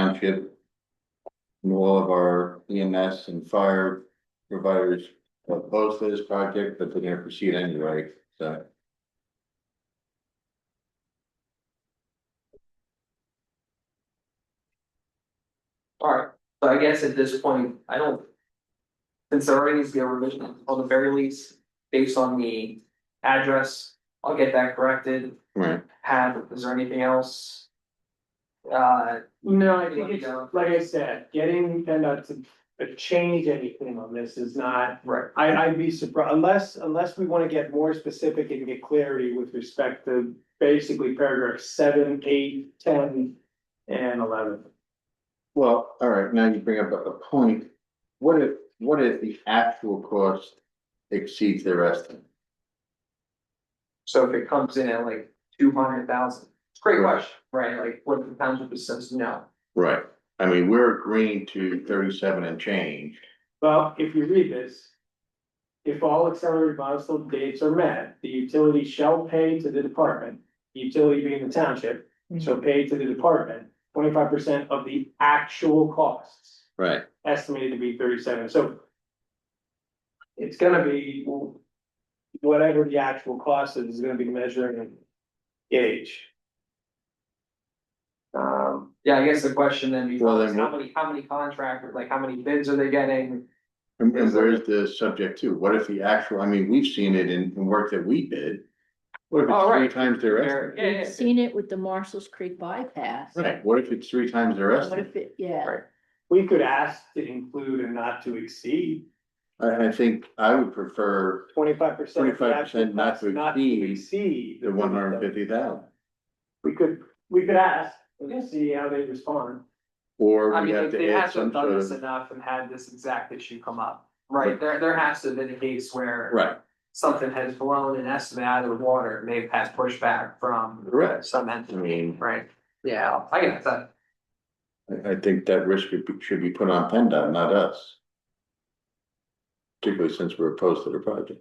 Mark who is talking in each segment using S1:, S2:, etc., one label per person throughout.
S1: township. And all of our EMS and fire providers are opposed to this project, but they're gonna proceed anyway, so.
S2: Alright, so I guess at this point, I don't. Since there already needs to be a revision, on the very least, based on the address, I'll get that corrected,
S1: Right.
S2: have, is there anything else? Uh,
S3: No, I think it's, like I said, getting PennDOT to to change anything on this is not,
S2: right,
S3: I, I'd be surprised, unless, unless we wanna get more specific and get clarity with respect to basically paragraph seven, eight, ten, and eleven.
S1: Well, all right, now you bring up a a point. What if, what if the actual cost exceeds their estimate?
S2: so if it comes in at like two hundred thousand, it's a great question, right, like what if the township says no?
S1: Right, I mean, we're agreeing to thirty-seven and change.
S3: Well, if you read this. If all accelerated milestone dates are met, the utility shall pay to the department, utility being the township, shall pay to the department twenty-five percent of the actual costs.
S1: Right.
S3: estimated to be thirty-seven, so. It's gonna be whatever the actual cost is, is gonna be measuring gauge. Um,
S2: Yeah, I guess the question then
S1: Well,
S2: becomes,
S1: then
S2: how
S1: what-
S2: many, how many contractors, like how many bids are they getting?
S1: And and where is the subject to? What if the actual, I mean, we've seen it in in work that we did. What if
S2: Oh,
S1: it's three
S2: right.
S1: times their estimate?
S2: They're- yeah,
S4: We've
S2: yeah,
S4: seen it with the Marshall's Creek bypass.
S1: Right, what if it's three times the rest?
S4: What if it, yeah,
S2: Right.
S3: we could ask to include and not to exceed
S1: I, I think I would prefer
S3: twenty-five percent.
S1: 25% not to exceed
S3: Exceed.
S1: the one hundred and fifty thousand,
S3: We could, we could ask, and see how they respond.
S1: or
S2: I
S1: we
S2: mean,
S1: have
S2: they
S1: to add some
S2: hasn't
S1: sort
S2: done this
S1: of.
S2: enough and had this exact issue come up, right, there, there has to have been a case where.
S1: Right,
S2: something has blown an estimate out of the water, maybe has pushback from
S1: correct.
S2: some
S1: I
S2: entity,
S1: mean,
S2: right? Yeah, I get that.
S1: I, I think that risk should be, should be put on PennDOT, not us. Particularly since we're opposed to the project.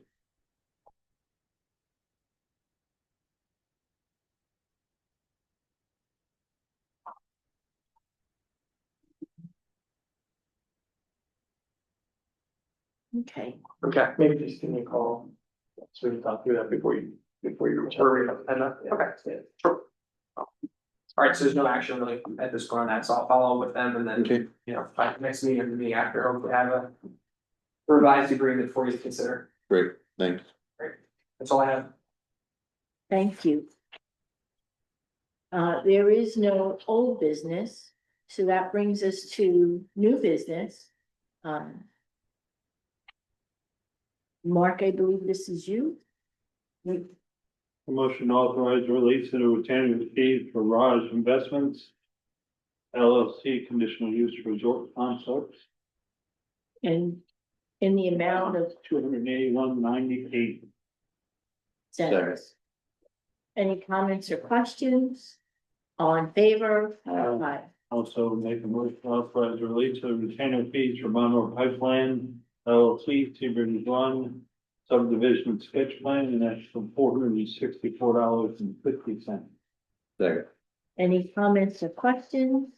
S4: okay.
S2: Okay.
S3: Maybe just give me a call, sort of talk through that before you, before you return.
S2: Hurry up, and, uh, Okay, sure. All right, so there's no action really at this point on that, so I'll follow up with them and then,
S1: Okay.
S2: you know, by next meeting or the meeting after, hopefully have a revised agreement for you to consider.
S1: Great, thanks.
S2: That's all I have.
S4: Thank you. Uh, there is no old business, so that brings us to new business. Um, Mark, I believe this is you.
S5: Motion to authorize release of the retained fees for Raj Investments LLC conditional use resort concepts,
S4: And in the amount of
S5: two hundred eighty-one ninety-eight.
S4: centers. Any comments or questions? All in favor?
S2: Um.
S4: Aye.
S5: Also make a motion to authorize release of retained fees for Monroe Pipeline LLC, Seabridge One subdivision sketch plan, and that's for four hundred and sixty-four dollars and fifty cents.
S1: Second.
S4: Any comments or questions?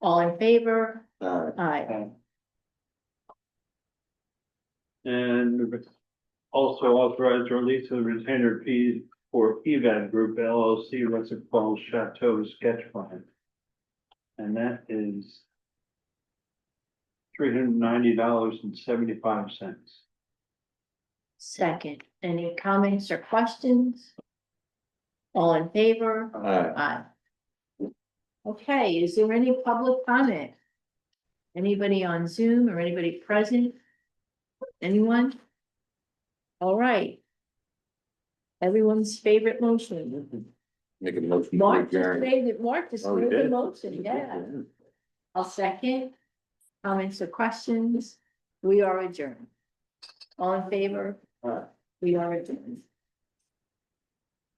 S4: All in favor?
S1: Alright,
S4: Aye.
S5: And also authorized release of retainer fees for Evan Group LLC, Russell Falls Chateau Sketch Plan. And that is three hundred ninety dollars and seventy-five cents.
S4: Second, any comments or questions? All in favor?
S1: alright,
S4: Aye. Okay, is there any public comment? Anybody on Zoom or anybody present? Anyone? All right. Everyone's favorite motion.
S1: make a motion. to
S4: Mark just
S1: adjourn.
S4: made it, Mark just
S1: Oh, we
S4: made the
S1: did?
S4: motion, yeah. I'll second. Comments or questions? We are adjourned. All in favor?
S1: Aye.
S4: We are adjourned.